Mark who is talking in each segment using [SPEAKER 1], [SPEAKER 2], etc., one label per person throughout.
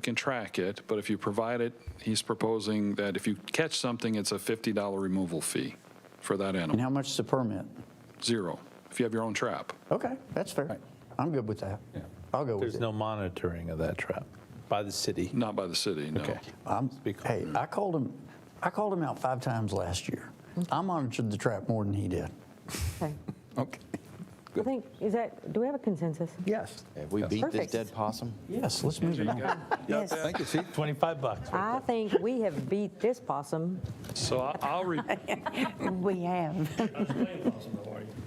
[SPEAKER 1] can track it, but if you provide it, he's proposing that if you catch something, it's a $50 removal fee for that
[SPEAKER 2] And
[SPEAKER 1] animal,
[SPEAKER 2] how much is the permit?
[SPEAKER 1] zero, if you have your own trap.
[SPEAKER 2] Okay, that's fair. I'm good with that. I'll go with
[SPEAKER 3] There's
[SPEAKER 2] it.
[SPEAKER 3] no monitoring of that trap by the city.
[SPEAKER 1] Not by the city, no.
[SPEAKER 3] Okay.
[SPEAKER 2] I'm-
[SPEAKER 3] Speak-
[SPEAKER 2] Hey, I called him, I called him out five times last year. I monitored the trap more than he did.
[SPEAKER 4] Okay.
[SPEAKER 2] Okay.
[SPEAKER 4] I think, is that, do we have a consensus?
[SPEAKER 2] Yes.
[SPEAKER 5] Have we beat this
[SPEAKER 4] Perfect.
[SPEAKER 5] dead possum?
[SPEAKER 2] Yes, let's move it on.
[SPEAKER 4] Yes.
[SPEAKER 3] Thank you, see, 25 bucks.
[SPEAKER 4] I think we have beat this possum.
[SPEAKER 1] So I- I'll repeat
[SPEAKER 4] We have.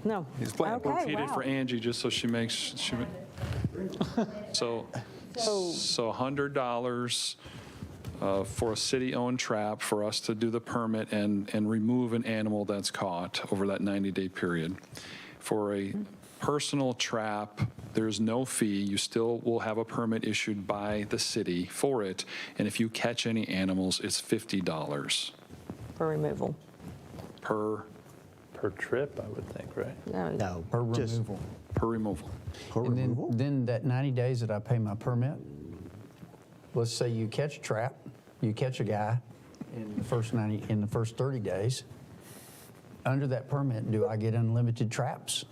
[SPEAKER 4] No. Okay,
[SPEAKER 1] it for
[SPEAKER 4] wow.
[SPEAKER 1] Angie, just so she makes, she, ma- so, so $100 uh, for a city-owned trap for us to do the permit and, and remove an animal that's caught over that 90-day period. For a personal trap, there's no fee. You still will have a permit issued by the city for it. And if you catch any animals, it's $50
[SPEAKER 4] For removal.
[SPEAKER 1] per,
[SPEAKER 3] Per trip, I would think, right?
[SPEAKER 4] No,
[SPEAKER 6] No.
[SPEAKER 2] Or
[SPEAKER 6] just-
[SPEAKER 2] removal.
[SPEAKER 1] per removal.
[SPEAKER 2] Or
[SPEAKER 6] And then-
[SPEAKER 2] removal. Then that 90 days that I pay my permit, let's say you catch a trap, you catch a guy in the first 90, in the first 30 days, under that permit, do I get unlimited traps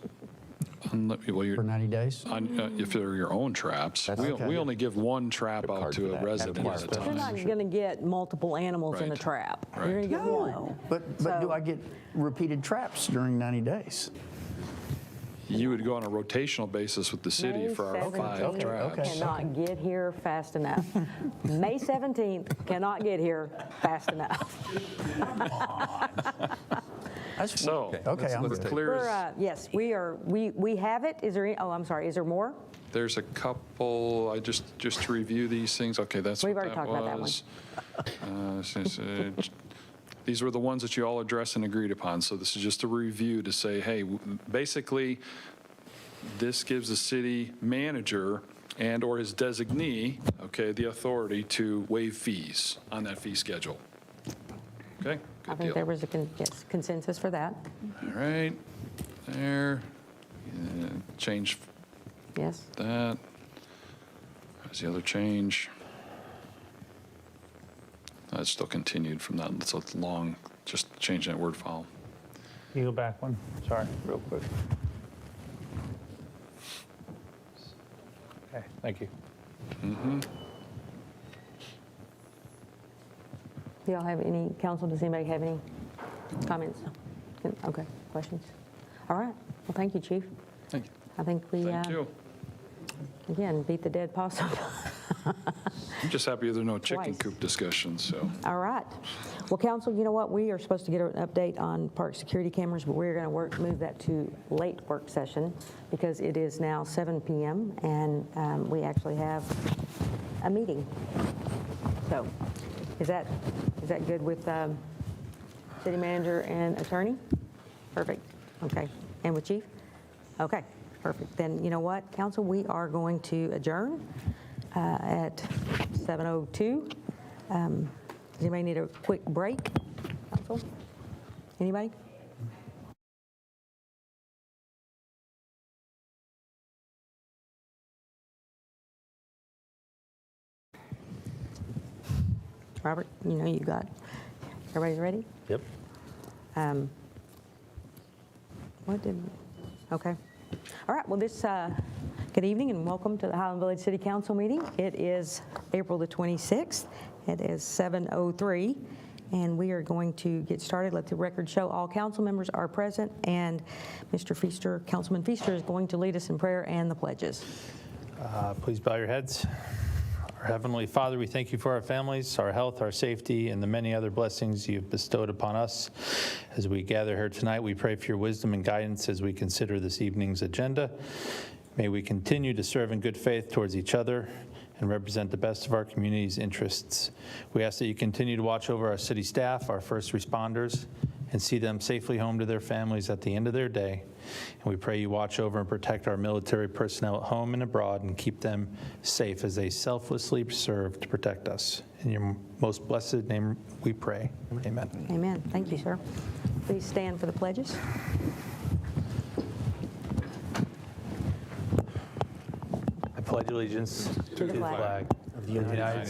[SPEAKER 1] Unli- Well, you're.
[SPEAKER 2] for 90 days?
[SPEAKER 1] on, uh, if they're your own traps.
[SPEAKER 5] That's
[SPEAKER 1] We,
[SPEAKER 5] okay.
[SPEAKER 1] we only give one trap out
[SPEAKER 5] card for
[SPEAKER 1] to
[SPEAKER 5] that.
[SPEAKER 1] a resident at a
[SPEAKER 5] That's
[SPEAKER 4] You're
[SPEAKER 1] time.
[SPEAKER 4] not going to get multiple animals in a
[SPEAKER 1] Right.
[SPEAKER 4] trap. You're going to get one.
[SPEAKER 2] But, but do
[SPEAKER 4] So-
[SPEAKER 2] I get repeated traps during 90 days?
[SPEAKER 1] You would go on a rotational basis with the city
[SPEAKER 4] May
[SPEAKER 1] for our
[SPEAKER 4] 17th
[SPEAKER 1] five
[SPEAKER 2] Okay, okay.
[SPEAKER 1] traps.
[SPEAKER 4] Cannot get here fast enough. May 17th cannot get here fast enough.
[SPEAKER 2] That's-
[SPEAKER 1] So,
[SPEAKER 2] Okay, I'm
[SPEAKER 1] we're
[SPEAKER 2] good.
[SPEAKER 1] clear
[SPEAKER 4] We're,
[SPEAKER 1] as-
[SPEAKER 4] uh, yes, we are, we, we have it. Is there, any- oh, I'm sorry, is there more?
[SPEAKER 1] there's a couple, I just, just to review these things, okay, that's
[SPEAKER 4] We've
[SPEAKER 1] what that
[SPEAKER 4] already talked about that one.
[SPEAKER 1] was. Uh, since, uh, j- These were the ones that you all addressed and agreed upon, so this is just a review to say, hey, w- basically, this gives the city manager and/or his designee, okay, the authority to waive fees on that fee schedule. Okay,
[SPEAKER 4] I
[SPEAKER 1] good
[SPEAKER 4] think
[SPEAKER 1] deal.
[SPEAKER 4] there
[SPEAKER 1] All
[SPEAKER 4] was a con- yes, consensus for that.
[SPEAKER 1] right, there, Yeah, change
[SPEAKER 4] Yes.
[SPEAKER 1] that. That's the other change. That's still continued from that, so it's long, just change that word file.
[SPEAKER 7] You go back one, sorry, real quick.
[SPEAKER 3] Okay, thank you.
[SPEAKER 4] Do y'all have any, council, does anybody have any comments? Okay, questions? All right, well, thank you, chief.
[SPEAKER 1] Thank you.
[SPEAKER 4] I think we, uh,
[SPEAKER 1] Thank you.
[SPEAKER 4] again, beat the dead possum.
[SPEAKER 1] I'm just happy there are no chicken
[SPEAKER 4] Twice.
[SPEAKER 1] coop discussions, so.
[SPEAKER 4] All right. Well, council, you know what, we are supposed to get an update on park security cameras, but we're going to work, move that to late work session because it is now 7 PM and um, we actually have a meeting. So is that, is that good with um, city manager and attorney? Perfect. Okay. And with chief? Okay, perfect. Then, you know what, council, we are going to adjourn uh, at 7:02. Um, Does anybody need a quick break? Council? Anybody? Robert, you know you got, everybody's ready?
[SPEAKER 3] Yep.
[SPEAKER 4] Um, What did, okay. All right, well, this, uh, good evening and welcome to the Highland Village City Council meeting. It is April the 26th. It is 7:03, and we are going to get started. Let the record show all council members are present, and Mr. Feaster, Councilman Feaster is going to lead us in prayer and the pledges.
[SPEAKER 3] Uh, Please bow your heads. Our Heavenly Father, we thank you for our families, our health, our safety, and the many other blessings you've bestowed upon us. As we gather here tonight, we pray for your wisdom and guidance as we consider this evening's agenda. May we continue to serve in good faith towards each other and represent the best of our community's interests. We ask that you continue to watch over our city staff, our first responders, and see them safely home to their families at the end of their day. And we pray you watch over and protect our military personnel at home and abroad and keep them safe as they selflessly serve to protect us. In your most blessed name we pray. Amen.
[SPEAKER 4] Amen. Thank you, sir. Please stand for the pledges.
[SPEAKER 3] I pledge allegiance to the
[SPEAKER 4] flag
[SPEAKER 3] flag of the United